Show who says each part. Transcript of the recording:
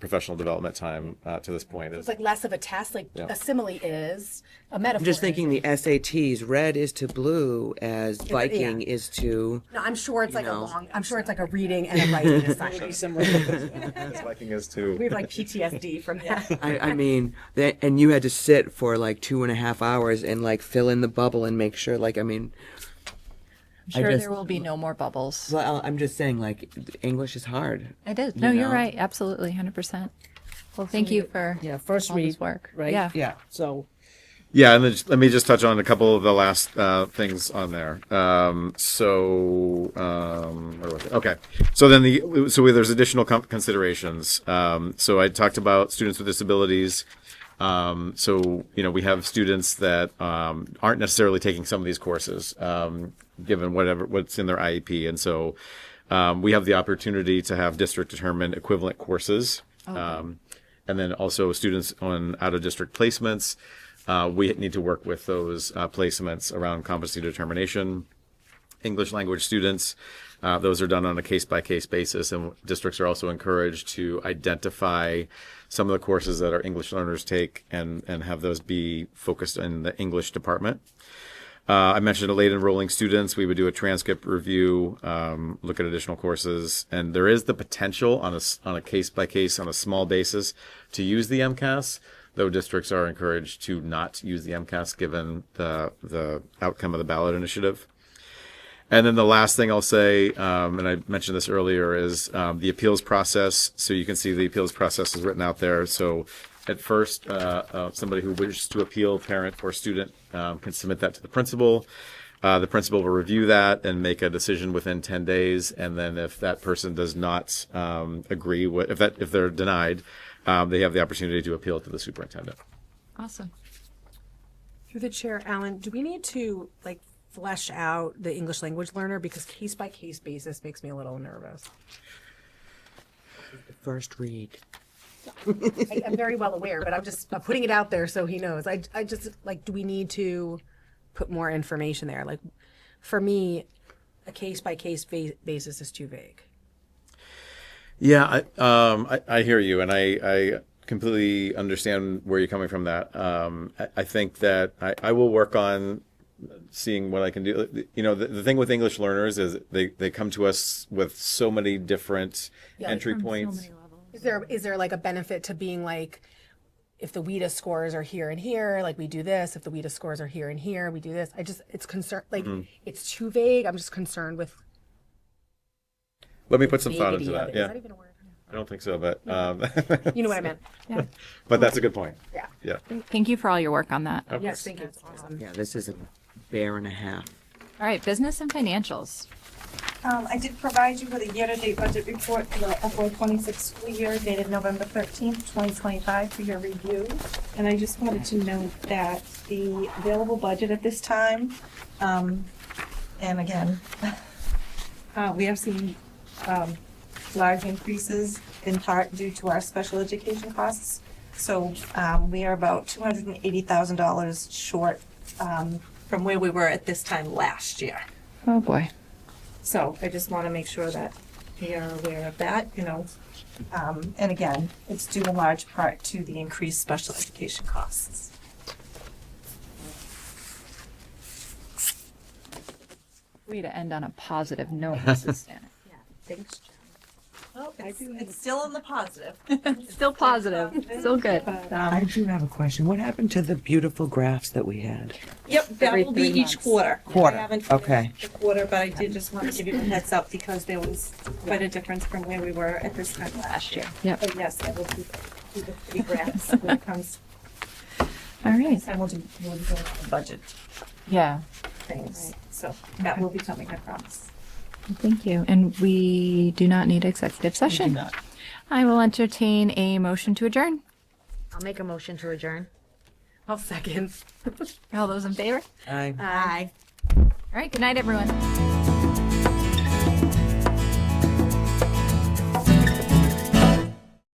Speaker 1: professional development time uh, to this point.
Speaker 2: It's like less of a test, like a simile is, a metaphor.
Speaker 3: I'm just
Speaker 2: is.
Speaker 3: thinking the SATs, red is to blue as Viking is to.
Speaker 2: No, I'm sure it's like a
Speaker 3: know.
Speaker 2: long, I'm sure it's like a reading and a writing assignment.
Speaker 1: As Viking is
Speaker 2: We
Speaker 1: too.
Speaker 2: have like PTSD from that.
Speaker 3: I, I mean, that, and you had to sit for like two and a half hours and like fill in the bubble and make sure, like, I mean, I
Speaker 4: Sure,
Speaker 3: just-
Speaker 4: there will be no more bubbles.
Speaker 3: well, I'm just saying, like, English is hard.
Speaker 4: It is. No, you're
Speaker 3: know.
Speaker 4: right. Absolutely, hundred percent. Well, thank you for
Speaker 5: Yeah, first
Speaker 4: all
Speaker 5: read,
Speaker 4: this work.
Speaker 5: right?
Speaker 4: Yeah.
Speaker 5: So,
Speaker 1: Yeah, and then just, let me just touch on a couple of the last uh, things on there. Um, so, um, where was it? Okay, so then the so we, there's additional com- considerations. Um, so I talked about students with disabilities. Um, so you know we have students that um, aren't necessarily taking some of these courses, um, given whatever what's in their IEP, and so um, we have the opportunity to have district determined equivalent courses. Um, and then also students on out of district placements. Uh, we need to work with those uh, placements around competency determination. English language students, uh, those are done on a case by case basis, and districts are also encouraged to identify some of the courses that our English learners take and, and have those be focused in the English department. Uh, I mentioned late enrolling students. We would do a transcript review, um, look at additional courses, and there is the potential on a s- on a case by case on a small basis to use the MCAS. Though districts are encouraged to not use the MCAS given the the outcome of the ballot initiative. And then the last thing I'll say, um, and I mentioned this earlier, is um, the appeals process. So you can see the appeals process is written out there. So at first, uh, uh, somebody who wishes to appeal, parent or student, um, can submit that to the principal. Uh, the principal will review that and make a decision within 10 days. And then if that person does not um, agree, with, if that if they're denied, um, they have the opportunity to appeal to the superintendent.
Speaker 4: Awesome.
Speaker 6: Through the chair, Alan, do we need to like flesh out the English language learner because case by case basis makes me a little nervous.
Speaker 3: First read.
Speaker 6: I, I'm very well aware, but I'm just I'm putting it out there so he knows. I I just like do we need to put more information there? Like for me, a case by case basis is too vague.
Speaker 1: Yeah, I, um, I, I hear you, and I, I completely understand where you're coming from. That um, I, I think that I, I will work on seeing what I can do. You know, the, the thing with English learners is they, they come to us with so many different entry points.
Speaker 6: Is there is there like a benefit to being like if the WIDA scores are here and here, like we do this. If the WIDA scores are here and here, we do this. I just it's concerned like it's too vague. I'm just concerned with
Speaker 1: Let me put some thought into
Speaker 6: Is
Speaker 1: that.
Speaker 6: that
Speaker 1: Yeah,
Speaker 6: even a word?
Speaker 1: I don't think so, but um,
Speaker 6: You know what I meant.
Speaker 1: but that's a good point.
Speaker 6: Yeah.
Speaker 1: Yeah.
Speaker 4: Thank you for all your work on that. All
Speaker 6: Yes, thank you. It's awesome.
Speaker 3: Yeah, this is a bear and a half.
Speaker 4: right, business and financials.
Speaker 7: Um, I did provide you with a year-to-date budget report for the FY twenty-six school year dated November thirteenth, twenty twenty-five for your review. And I just wanted to note that the available budget at this time, um, and again, uh, we have seen, um, large increases in part due to our special education costs. So, um, we are about two hundred and eighty thousand dollars short, um, from where we were at this time last year.
Speaker 4: Oh boy.
Speaker 7: So I just want to make sure that they are aware of that, you know. Um, and again, it's due in large part to the increased special education costs.
Speaker 4: Way to end on a positive note, Mrs. Stanek.
Speaker 7: Thanks, Jen. Well, it's, it's still in the positive.
Speaker 4: Still positive. Still good.
Speaker 3: I
Speaker 4: Um,
Speaker 3: do have a question. What happened to the beautiful graphs that we had?
Speaker 7: Yep, that will be
Speaker 4: Every three
Speaker 7: each
Speaker 4: months.
Speaker 7: quarter.
Speaker 3: Quarter,
Speaker 7: I haven't finished
Speaker 3: okay.
Speaker 7: The quarter, but I did just want to give you a heads up because there was quite a difference from where we were at this time last year.
Speaker 4: Yep.
Speaker 7: But yes, I will do, do the three graphs when it comes,
Speaker 4: all right.
Speaker 7: and we'll do, we'll do the budget
Speaker 4: Yeah.
Speaker 7: things. So that will be coming, I promise.
Speaker 4: Thank you. And we do not need executive session. I will entertain a motion to adjourn.
Speaker 8: I'll make a motion to adjourn.
Speaker 6: I'll second.
Speaker 4: All those in favor?
Speaker 3: I
Speaker 8: Aye.
Speaker 4: All right. Good night, everyone.